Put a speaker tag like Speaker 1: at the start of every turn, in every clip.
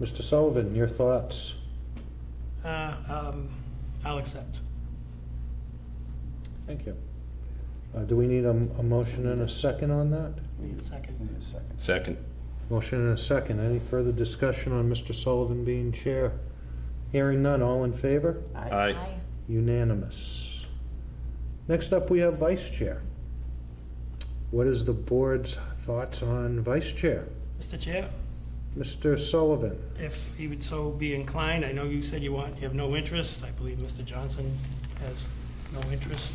Speaker 1: Mr. Sullivan, your thoughts?
Speaker 2: Uh, um, I'll accept.
Speaker 1: Thank you. Uh, Do we need a, a motion and a second on that?
Speaker 2: Need a second.
Speaker 3: Need a second.
Speaker 4: Second.
Speaker 1: Motion and a second. Any further discussion on Mr. Sullivan being chair? Hearing none, all in favor?
Speaker 4: Aye.
Speaker 1: Unanimous. Next up, we have vice chair. What is the board's thoughts on vice chair?
Speaker 2: Mr. Chair,
Speaker 1: Mr. Sullivan?
Speaker 2: if he would so be inclined, I know you said you want, you have no interest. I believe Mr. Johnson has no interest.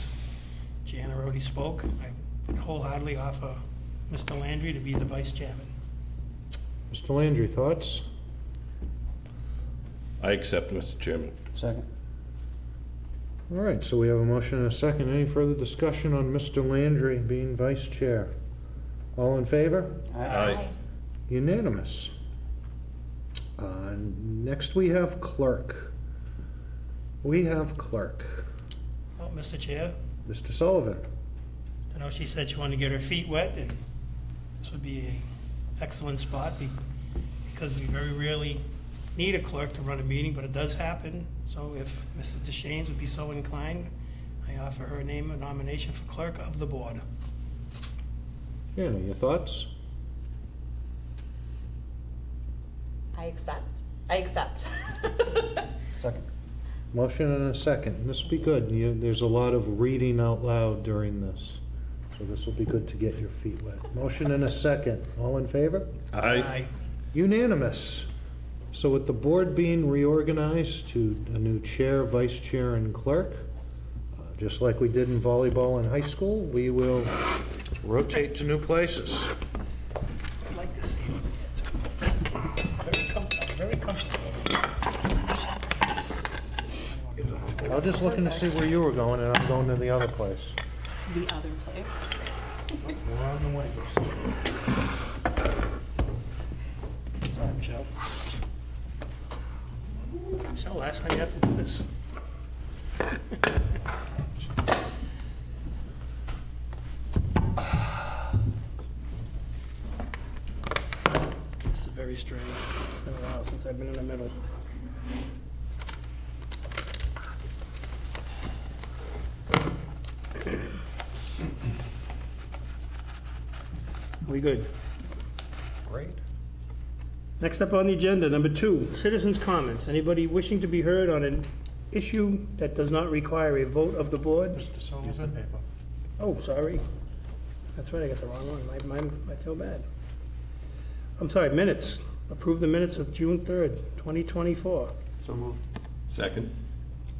Speaker 2: Jana already spoke. I would wholeheartedly offer Mr. Landry to be the vice chairman.
Speaker 1: Mr. Landry, thoughts?
Speaker 4: I accept, Mr. Chairman.
Speaker 3: Second.
Speaker 1: All right, so we have a motion and a second. Any further discussion on Mr. Landry being vice chair? All in favor?
Speaker 4: Aye.
Speaker 1: Unanimous. Uh, Next, we have clerk. We have clerk.
Speaker 2: Well, Mr. Chair,
Speaker 1: Mr. Sullivan,
Speaker 2: I know she said she wanted to get her feet wet, and this would be an excellent spot be- because we very rarely need a clerk to run a meeting, but it does happen. So if Mrs. DeShanes would be so inclined, I offer her name a nomination for clerk of the board.
Speaker 1: Anna, your thoughts?
Speaker 5: I accept. I accept.
Speaker 3: Second.
Speaker 1: Motion and a second. This will be good. You- There's a lot of reading out loud during this, so this will be good to get your feet wet. Motion and a second. All in favor?
Speaker 4: Aye.
Speaker 1: Unanimous. So with the board being reorganized to a new chair, vice chair, and clerk, uh, just like we did in volleyball in high school, we will rotate to new places.
Speaker 2: I'd like to see what it is. Very comfortable, very comfortable.
Speaker 1: I was just looking to see where you were going, and I'm going to the other place.
Speaker 5: the other place.
Speaker 2: Sorry, Michelle. Michelle, last time you have to do this. This is very strange. It's been a while since I've been in the middle. We good?
Speaker 1: Great.
Speaker 2: Next up on the agenda, number two, citizens' comments. Anybody wishing to be heard on an issue that does not require a vote of the board?
Speaker 1: Mr. Sullivan?
Speaker 2: Oh, sorry. That's right, I got the wrong one. My, my, I feel bad. I'm sorry, minutes. Approve the minutes of June 3rd, 2024.
Speaker 4: Second.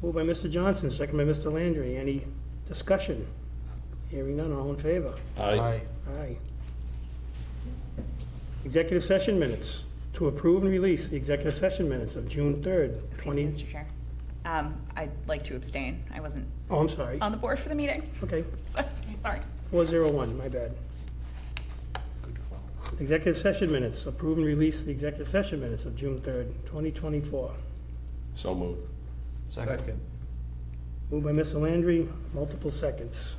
Speaker 2: Moved by Mr. Johnson, second by Mr. Landry. Any discussion? Hearing none, all in favor?
Speaker 4: Aye.
Speaker 2: Aye. Executive session minutes. To approve and release the executive session minutes of June 3rd,
Speaker 5: Excuse me,
Speaker 2: 20...
Speaker 5: Mr. Chair. Um, I'd like to abstain. I wasn't
Speaker 2: Oh, I'm sorry.
Speaker 5: on the board for the meeting.
Speaker 2: Okay,
Speaker 5: So, sorry.
Speaker 2: 401, my bad. Executive session minutes. Approve and release the executive session minutes of June 3rd, 2024.
Speaker 4: So moved.
Speaker 1: Second.
Speaker 2: Moved by Mr. Landry, multiple seconds.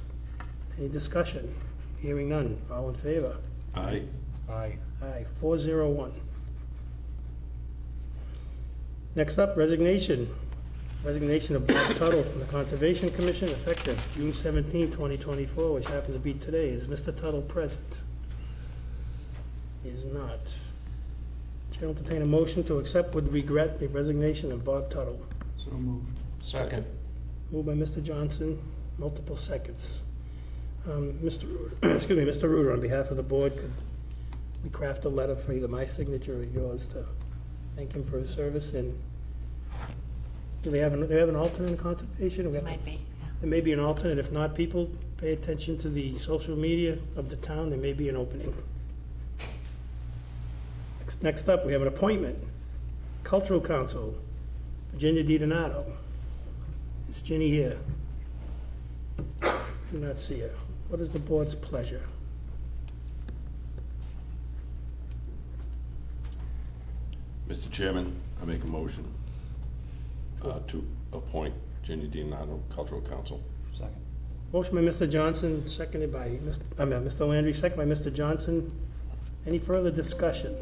Speaker 2: Any discussion? Hearing none. All in favor?
Speaker 4: Aye.
Speaker 1: Aye.
Speaker 2: Aye, 401. Next up, resignation. Resignation of Bob Tuttle from the Conservation Commission effective June 17, 2024, which happens to be today. Is Mr. Tuttle present? He is not. Chair will entertain a motion to accept with regret the resignation of Bob Tuttle.
Speaker 3: So moved.
Speaker 4: Second.
Speaker 2: Moved by Mr. Johnson, multiple seconds. Um, Mr. Ruder, excuse me, Mr. Ruder, on behalf of the board, could we craft a letter for either my signature or yours to thank him for his service and do they have, an- do they have an alternate in conservation? It
Speaker 5: be.
Speaker 2: There may be an alternate. If not, people, pay attention to the social media of the town. There may be an opening. Next- Next up, we have an appointment. Cultural Council, Virginia Di Donato. Is Ginny here? Do not see her. What is the board's pleasure?
Speaker 4: Mr. Chairman, I make a motion uh, to appoint Virginia DiNardo Cultural Council.
Speaker 3: Second.
Speaker 2: Motion by Mr. Johnson, seconded by, Mr. I mean, Mr. Landry, seconded by Mr. Johnson. Any further discussion?